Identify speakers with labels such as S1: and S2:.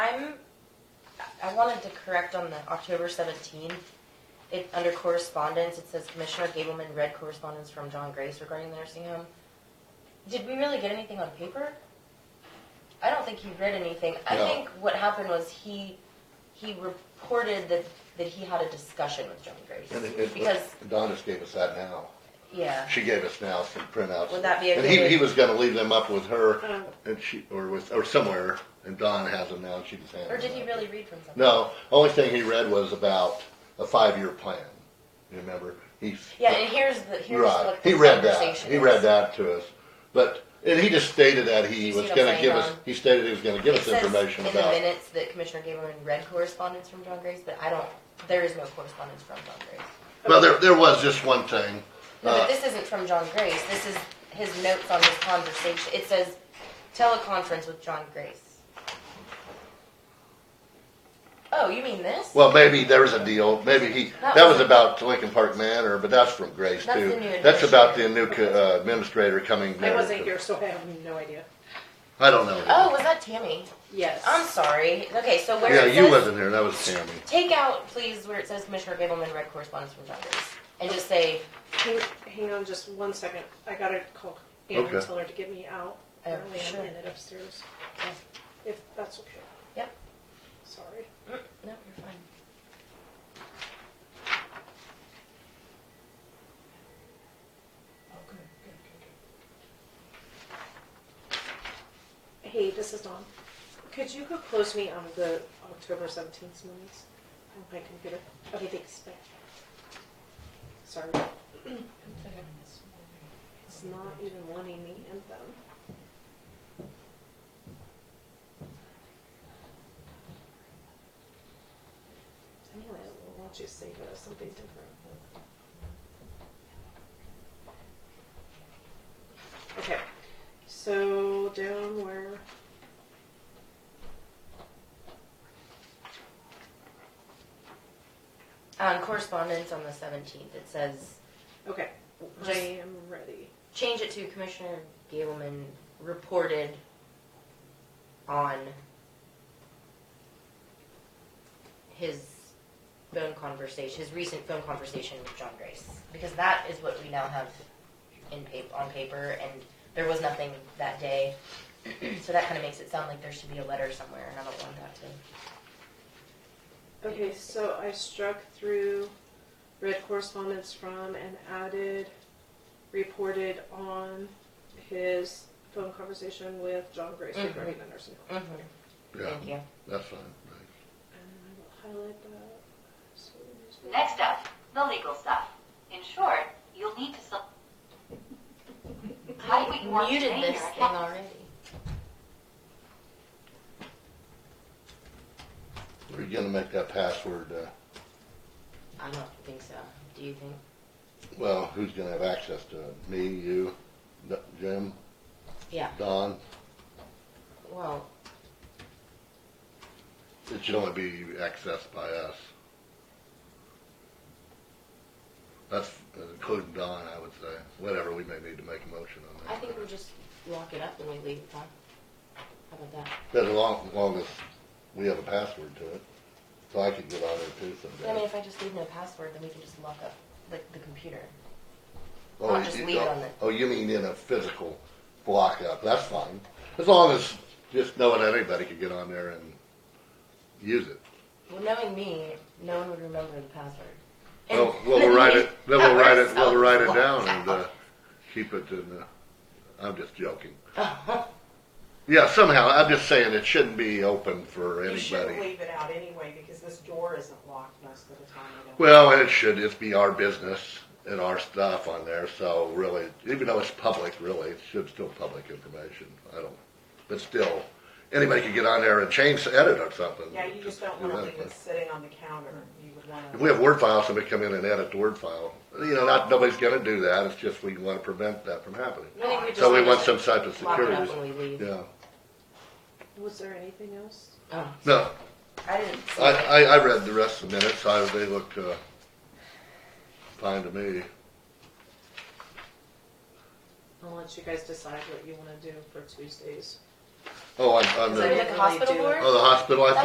S1: I wanted to correct on the October seventeenth. It, under correspondence, it says Commissioner Gableman read correspondence from John Grace regarding the nursing home. Did we really get anything on paper? I don't think he read anything. I
S2: No.
S1: think what happened was he, he reported that, that he had a discussion with John
S2: And it-
S1: Grace.
S2: it-
S1: Because,
S2: Adonis gave us that now.
S1: yeah,
S2: She gave us now some printouts.
S1: Would that be a
S2: And he,
S1: good-
S2: he was gonna leave them up with her
S3: Oh.
S2: and she, or with, or somewhere, and Don has them now and she just handed them.
S1: or did he
S2: out.
S1: really read from something?
S2: No, only thing he read was about a five-year plan. You remember? He.
S1: Yeah, and here's the, here's
S2: Right,
S1: what the
S2: he read that,
S1: conversation
S2: he
S1: is.
S2: read that to us, but, and he just stated that he
S1: You see
S2: was
S1: what I'm
S2: gonna
S1: saying,
S2: give us,
S1: Ron?
S2: he stated he was gonna give
S1: It
S2: us
S1: says
S2: information
S1: In the
S2: about.
S1: minutes that Commissioner Gableman read correspondence from John Grace, but I don't, there is no correspondence from John Grace.
S2: Well, there, there was just one thing,
S1: No,
S2: Uh,
S1: but this isn't from John Grace, this is his notes on his conversation, it says teleconference with John Grace. Oh, you mean this?
S2: well, maybe there was a deal, maybe he,
S1: That
S2: that was
S1: was-
S2: about Lincoln Park Manor, but that's from Grace
S1: That's the
S2: too.
S1: new
S2: That's about the new co- uh, administrator coming.
S3: I
S2: there
S3: wasn't
S2: to-
S3: here, so I have no idea.
S2: I don't know.
S1: Oh, was that Tammy?
S3: Yes.
S1: I'm sorry, okay, so where
S2: Yeah,
S1: it
S2: you
S1: says-
S2: wasn't here, that was Tammy.
S1: Take out, please, where it says Commissioner Gableman read correspondence from John Grace, and just say,
S3: Hang, hang on just one second. I gotta call Anna and
S2: Okay.
S3: tell her to get me out.
S1: Oh,
S3: Apparently I'm
S1: sure.
S3: in it upstairs.
S1: Yeah.
S3: If that's okay.
S1: Yep.
S3: Sorry.
S1: Mm, No, you're fine.
S3: Hey, this is Dawn. Could you go close me on the October seventeenth minutes on my computer? Okay, thanks. Bye. Sorry, it's not even wanting me in them. Anyway, why don't you save it as something different? Okay, so down where?
S1: Um, correspondence on the seventeenth, it says,
S3: Okay, I
S1: Just-
S3: am ready.
S1: change it to Commissioner Gableman reported on his phone conversation, his recent phone conversation with John Grace, because that is what we now have in pa- on paper, and there was nothing that day. So that kinda makes it sound like there should be a letter somewhere, and I don't want that to.
S3: Okay, so I struck through read correspondence from and added reported on his phone conversation with John Grace
S1: Mhm.
S3: regarding the nursing home.
S2: Yeah,
S1: Thank you.
S2: that's fine.
S3: And I will highlight that. So there's no-
S4: Next up, the legal stuff. In short, you'll need to. sel- How would you want to
S1: Muted
S4: name
S1: this
S4: your
S1: thing
S4: account?
S1: already.
S2: We're gonna make that password, uh,
S1: I don't think so. Do you think?
S2: well, who's gonna have access to it? Me, you, D- Jim,
S1: Yeah,
S2: Don?
S1: well,
S2: It should only be accessed by us. That's uh, including Don, I would say. Whatever, we may need to make a motion on that.
S1: I think we just lock it up and we leave it on. How about that?
S2: But as long, as long as we have a password to it, so I could get on there
S1: I
S2: too
S1: mean,
S2: someday.
S1: if I just leave no password, then we can just lock up the, the computer.
S2: Oh,
S1: I'll just
S2: you-
S1: leave it
S2: oh,
S1: on the-
S2: Oh, you mean in a physical block up, that's fine. As long as, just knowing that anybody could get on there and use it.
S1: Well, knowing me, no one would remember the password.
S2: Well,
S1: And-
S2: well, we'll write it, then we'll write it,
S1: That
S2: we'll write it
S1: works.
S2: down and, uh, keep it in the, I'm just joking.
S1: Oh,
S2: Yeah, somehow, I'm just saying it shouldn't be open for
S5: You shouldn't
S2: anybody.
S5: leave it out anyway, because this door isn't locked most of the time. you know.
S2: Well, and it should, it's be our business and our stuff on there, so really, even though it's public, really, it should still public information, I don't, but still, anybody could get on there and change, edit or something.
S5: Yeah, you just don't wanna leave it
S2: theoretically.
S5: sitting on the counter, you would wanna.
S2: If we have Word files, somebody come in and edit the Word file, you know, not, nobody's gonna do that, it's just we wanna prevent that from happening.
S1: I think we just.
S2: So we
S1: need
S2: want
S1: to
S2: some type of
S1: Lock it up
S2: security,
S1: when we leave.
S2: yeah,
S3: Was there anything else?
S1: Oh,
S2: no,
S1: I didn't see
S2: I,
S1: it.
S2: I, I read the rest of the minutes, I, they look, uh, fine to me.
S3: I'll let you guys decide what you wanna do for Tuesdays.
S2: Oh, on, on
S3: Is
S2: the,
S3: it-
S1: Like a hospital
S3: really do.
S1: board?
S2: oh, the hospital, I